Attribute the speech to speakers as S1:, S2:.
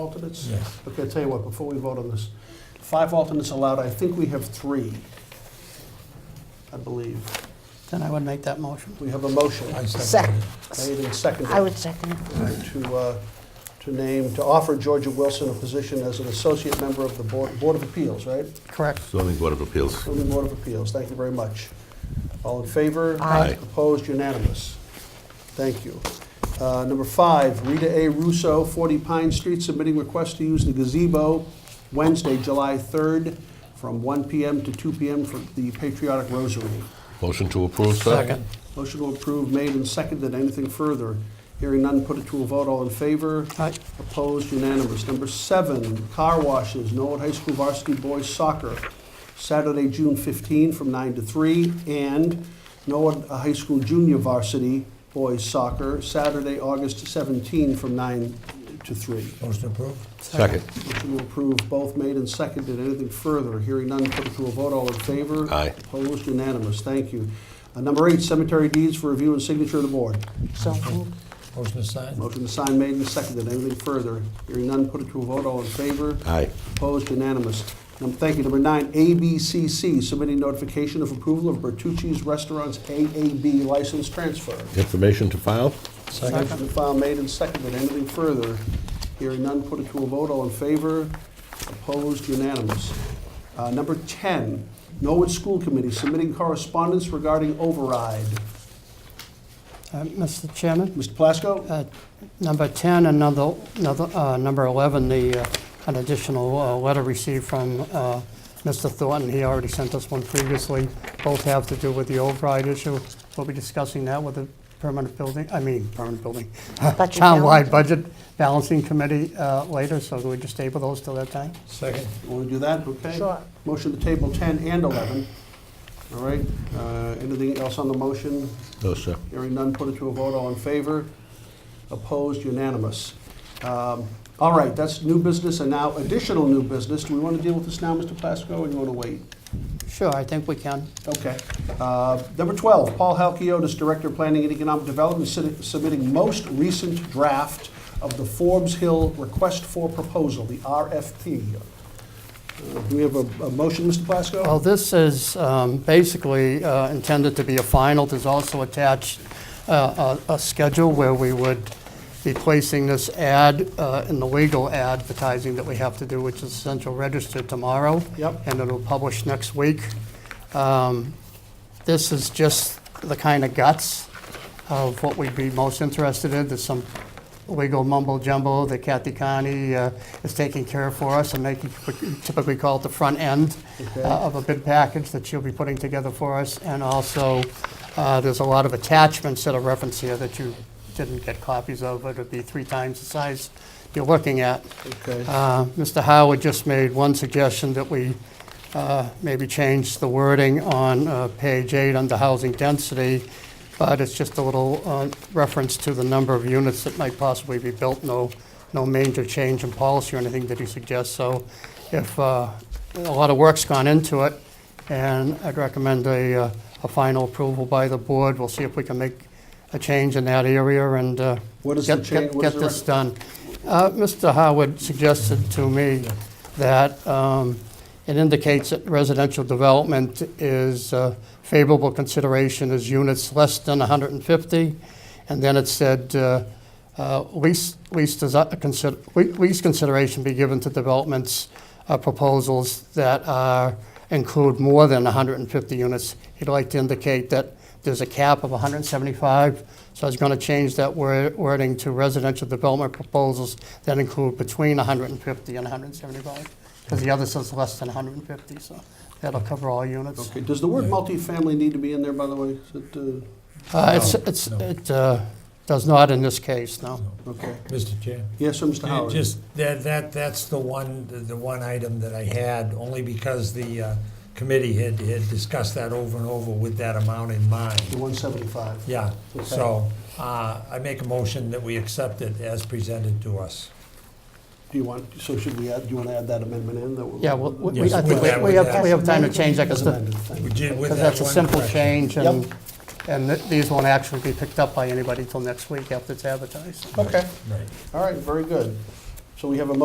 S1: alternates?
S2: Yes.
S1: Okay, I'll tell you what, before we vote on this, five alternates allowed, I think we have three, I believe.
S3: Then I would make that motion.
S1: We have a motion
S2: I second
S4: Second.
S2: it.
S1: made and seconded.
S4: I would second it.
S1: to, uh, to name, to offer Georgia Wilson a position as an associate member of the Board, Board of Appeals, right?
S3: Correct.
S5: zoning board of appeals.
S1: From the Board of Appeals, thank you very much. All in favor?
S5: Aye. Aye.
S1: Opposed, unanimous. Thank you. Uh, Number five, Rita A. Russo, 40 Pine Street, submitting request to use the gazebo Wednesday, July 3rd, from 1 PM to 2 PM for the Patriotic Rosary.
S5: Motion to approve, sir?
S2: Second.
S1: Motion to approve made and seconded. Anything further? Hearing none, put it to a vote. All in favor?
S3: Aye.
S1: Opposed, unanimous. Number seven, car washes, Norwood High School varsity boys soccer, Saturday, June 15, from 9 to 3, and Norwood High School junior varsity boys soccer, Saturday, August 17, from 9 to 3.
S2: Motion approved?
S5: Second.
S1: Motion to approve both made and seconded. Anything further? Hearing none, put it to a vote. All in favor?
S5: Aye.
S1: Opposed, unanimous. Thank you. Uh, Number eight, cemetery deeds for review and signature of the board.
S4: So
S3: Uh,
S4: moved.
S2: Motion to sign?
S1: Motion to sign made and seconded. Anything further? Hearing none, put it to a vote. All in favor?
S5: Aye.
S1: Opposed, unanimous. Num- Thank you. Number nine, ABCC, submitting notification of approval of Bertucci's Restaurants AAB license transfer.
S5: Information to file?
S1: Motion
S2: Second?
S1: to file made and seconded. Anything further? Hearing none, put it to a vote. All in favor? Opposed, unanimous. Uh, Number 10, Norwood School Committee submitting correspondence regarding override.
S3: Uh, Mr. Chairman,
S1: Mr. Plasko?
S3: uh, number 10, another, another, uh, number 11, the, uh, an additional uh, letter received from uh, Mr. Thornton. He already sent us one previously. Both have to do with the override issue. We'll be discussing that with the permanent building, I mean, permanent building,
S4: Budget
S3: townwide
S4: balance.
S3: budget balancing committee uh, later, so can we just table those till that time?
S2: Second?
S1: Want to do that? Okay.
S4: Sure.
S1: Motion to table 10 and 11. All right. Uh, Anything else on the motion?
S5: No, sir.
S1: Hearing none, put it to a vote. All in favor? Opposed? Unanimous. Um, All right, that's new business and now additional new business. Do we want to deal with this now, Mr. Plasko, or do you want to wait?
S3: Sure, I think we can.
S1: Okay. Uh, Number 12, Paul Halkiotis, Director of Planning and Economic Development, sit- submitting most recent draft of the Forbes Hill Request for Proposal, the RFP. Uh, Do we have a a motion, Mr. Plasko?
S3: Well, this is um, basically uh, intended to be a final. There's also attached uh, a a schedule where we would be placing this ad uh, in the legal advertising that we have to do, which is essential register tomorrow.
S1: Yep.
S3: And it'll publish next week. Um, This is just the kind of guts of what we'd be most interested in. There's some legal mumbo jumbo that Kathy Connie uh, is taking care of for us and making, we typically call it the front end
S1: Okay.
S3: uh, of a bid package that she'll be putting together for us. And also, uh, there's a lot of attachments that are referenced here that you didn't get copies of, but it'd be three times the size you're looking at.
S1: Okay.
S3: Uh, Mr. Howard just made one suggestion that we uh, maybe change the wording on uh, page eight under housing density, but it's just a little uh, reference to the number of units that might possibly be built, no, no major change in policy or anything that he suggests. So if, uh, a lot of work's gone into it, and I'd recommend a, uh, a final approval by the board. We'll see if we can make a change in that area and uh,
S1: What is the
S3: get,
S1: change-
S3: get
S1: what is
S3: get
S1: the
S3: this done. Uh, Mr. Howard suggested to me that um, it indicates that residential development is uh, favorable consideration as units less than 150, and then it said uh, uh, least, least, desi- uh, consider- le- least consideration be given to developments uh, proposals that are, include more than 150 units. He'd like to indicate that there's a cap of 175, so I was going to change that wor- wording to residential development proposals that include between 150 and 175, because the other says less than 150, so that'll cover all units.
S1: Okay, does the word multifamily need to be in there, by the way? Is it, uh,
S3: Uh, It's, it's,
S2: No, no.
S3: it uh, does not in this case, no.
S1: okay.
S2: Mr. Chair?
S1: Yes, sir, Mr.
S2: Yeah,
S1: Howard?
S2: Just, that, that, that's the one, the- the one item that I had, only because the uh, committee had, had discussed that over and over with that amount in mind.
S1: The 175.
S2: Yeah,
S1: Okay.
S2: so uh, I make a motion that we accept it as presented to us.
S1: Do you want, so should we add, do you want to add that amendment in? that we-
S3: Yeah, well, we- we-
S2: Yes,
S3: I think
S2: with
S3: we
S2: that-
S3: we have, we have
S4: with
S3: time to
S4: that.
S3: change that,
S1: As
S3: because
S1: amended, thank you.
S2: We did with
S3: Because that's a
S2: that one
S3: simple
S2: correction.
S3: change, and,
S1: Yep.
S3: and th- these won't actually be picked up by anybody till next week after it's advertised.
S1: Okay,
S2: Right.
S1: all right, very good. So we have a